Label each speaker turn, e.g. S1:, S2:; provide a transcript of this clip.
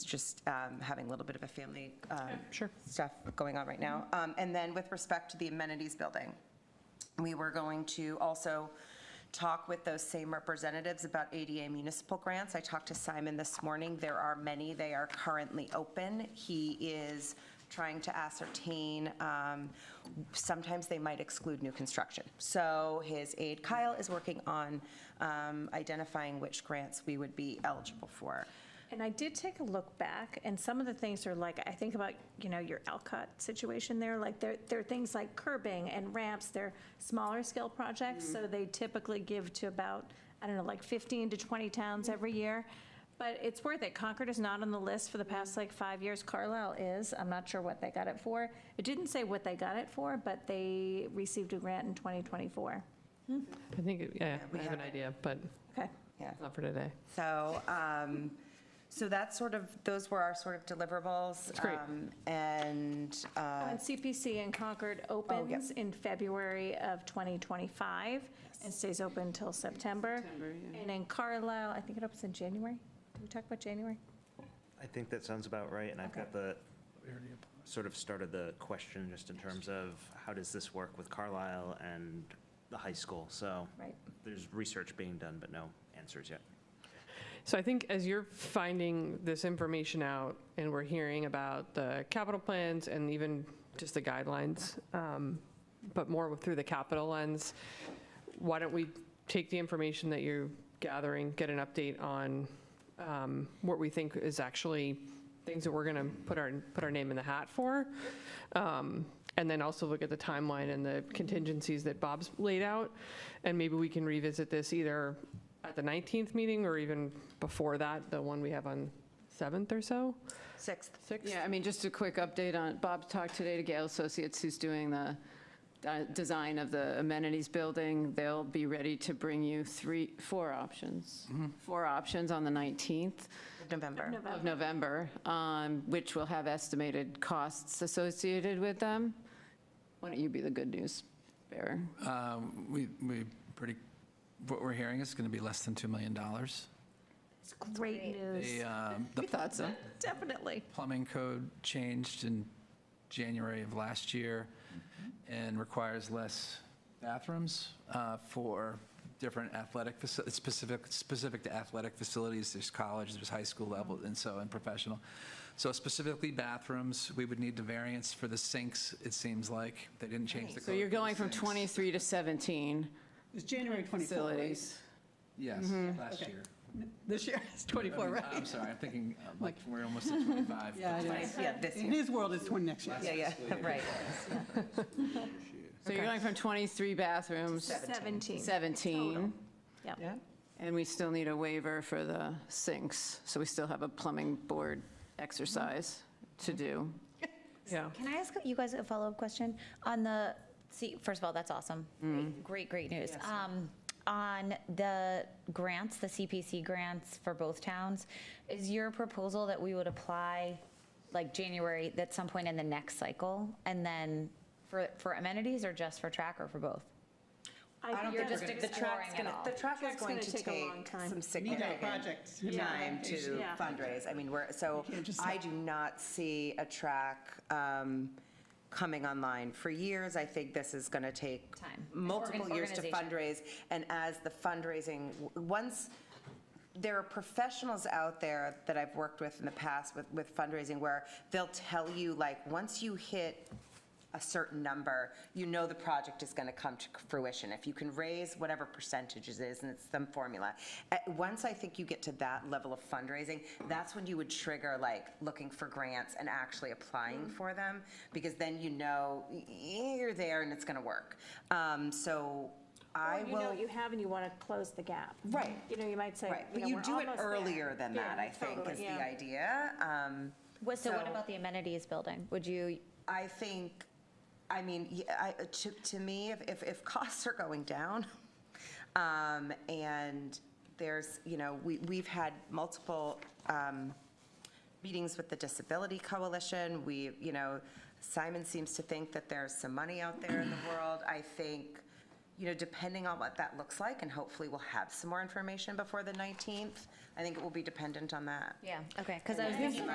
S1: just um, having a little bit of a family um,
S2: Sure.
S1: stuff going on right now. Um, And then with respect to the amenities building, we were going to also talk with those same representatives about ADA municipal grants. I talked to Simon this morning. There are many. They are currently open. He is trying to ascertain, um, sometimes they might exclude new construction. So his aide Kyle is working on um, identifying which grants we would be eligible for.
S2: And I did take a look back, and some of the things are like, I think about, you know, your Alcott situation there, like, there, there are things like curbing and ramps, they're smaller scale projects, so they typically give to about, I don't know, like 15 to 20 towns every year. But it's worth it. Concord is not on the list for the past like five years. Carlisle is. I'm not sure what they got it for. It didn't say what they got it for, but they received a grant in 2024.
S3: I think, it- yeah,
S1: we
S3: I have an
S1: have it.
S3: idea, but
S2: Okay.
S1: Yeah.
S3: not for today.
S1: So, um, so that's sort of, those were our sort of deliverables.
S3: great.
S1: um, And, uh, oh,
S2: And CPC in Concord opens in February of 2025 and stays open until September. And in Carlisle, I think it opens in January. Did we talk about January?
S4: I think that sounds about right, and I've got the, sort of started the question just in terms of how does this work with Carlisle and the high school? So
S2: Right.
S4: there's research being done, but no answers yet.
S3: So I think as you're finding this information out and we're hearing about the capital plans and even just the guidelines, um, but more through the capital lens, why don't we take the information that you're gathering, get an update on um, what we think is actually things that we're going to put our, put our name in the hat for? Um, And then also look at the timeline and the contingencies that Bob's laid out. And maybe we can revisit this either at the 19th meeting or even before that, the one we have on 7th or so,
S1: sixth,
S3: 6th?
S5: Yeah, I mean, just a quick update on, Bob talked today to Gale Associates, who's doing the uh, design of the amenities building. They'll be ready to bring you three, four options, four options on the 19th
S1: of November.
S5: of November, um, which will have estimated costs associated with them. Why don't you be the good news bearer?
S6: Um, We, we pretty, what we're hearing is going to be less than $2 million.
S2: It's great news.
S6: The, um, the
S5: We thought so.
S2: Definitely.
S6: plumbing code changed in January of last year
S5: Mm-hmm.
S6: and requires less bathrooms uh, for different athletic, faci- it's specific, specific to athletic facilities, there's college, there's high school level,
S5: Mm-hmm.
S6: and so, and professional. So specifically bathrooms, we would need the variance for the sinks, it seems like, they didn't change the code.
S5: So you're
S6: for the
S5: going from
S6: sinks.
S5: 23 to 17
S7: It's January 24, right?
S5: facilities.
S6: Yes,
S5: Mm-hmm.
S6: last year.
S7: This year is 24,
S6: I'm-
S7: right?
S6: I'm sorry, I'm thinking, uh, like, we're almost at 25.
S7: Yeah, it is.
S1: Yeah, this
S7: In
S1: year.
S7: his world, it's 20 next year.
S1: Yeah, yeah, right.
S5: So you're going from 23 bathrooms,
S2: 17.
S5: 17.
S2: Yep.
S5: And we still need a waiver for the sinks, so we still have a plumbing board exercise to do.
S3: Yeah.
S8: Can I ask you guys a follow-up question on the, see, first of all, that's awesome. Great, Great, great news. Um, On the grants, the CPC grants for both towns, is your proposal that we would apply like January, at some point in the next cycle? And then for, for amenities or just for track or for both?
S1: I don't
S2: you're
S1: think
S8: just
S1: we're gonna, the track's
S8: exploring it
S1: gonna,
S8: all.
S1: the track is
S2: Track's
S1: going
S2: gonna
S1: to
S2: take a
S1: take
S2: long time.
S1: some
S7: Need that
S1: significant
S7: project
S1: time
S7: time
S1: to
S2: Yeah.
S1: fundraise. I mean, we're, so
S7: can't just
S1: I
S7: have-
S1: do not see a track um, coming online for years. I think this is going to take
S8: Time.
S1: multiple
S8: Organ-
S1: years to
S8: organization.
S1: fundraise. And as the fundraising, w- once, there are professionals out there that I've worked with in the past with, with fundraising where they'll tell you, like, once you hit a certain number, you know the project is going to come to fruition. If you can raise whatever percentage it is, and it's some formula. At- Once I think you get to that level of fundraising, that's when you would trigger, like, looking for grants and actually applying for them, because then you know y- y- you're there and it's going to work. Um, So I
S2: Or
S1: will.
S2: you know what you have and you want to close the gap.
S1: Right.
S2: You know, you might say,
S1: Right,
S2: you
S1: but
S2: know,
S1: you
S2: we're
S1: do it
S2: almost there.
S1: earlier than
S2: Yeah,
S1: that, I think,
S2: totally,
S1: is the
S2: yeah.
S1: idea. Um,
S8: What- So what
S1: So-
S8: about the amenities building? Would you,
S1: I think, I mean, y- I- to, to me, if- if, if costs are going down, um, and there's, you know, we, we've had multiple, um, meetings with the Disability Coalition. We, you know, Simon seems to think that there's some money out there in the world. I think, you know, depending on what that looks like, and hopefully we'll have some more information before the 19th, I think it will be dependent on that.
S8: yeah, okay, because I was thinking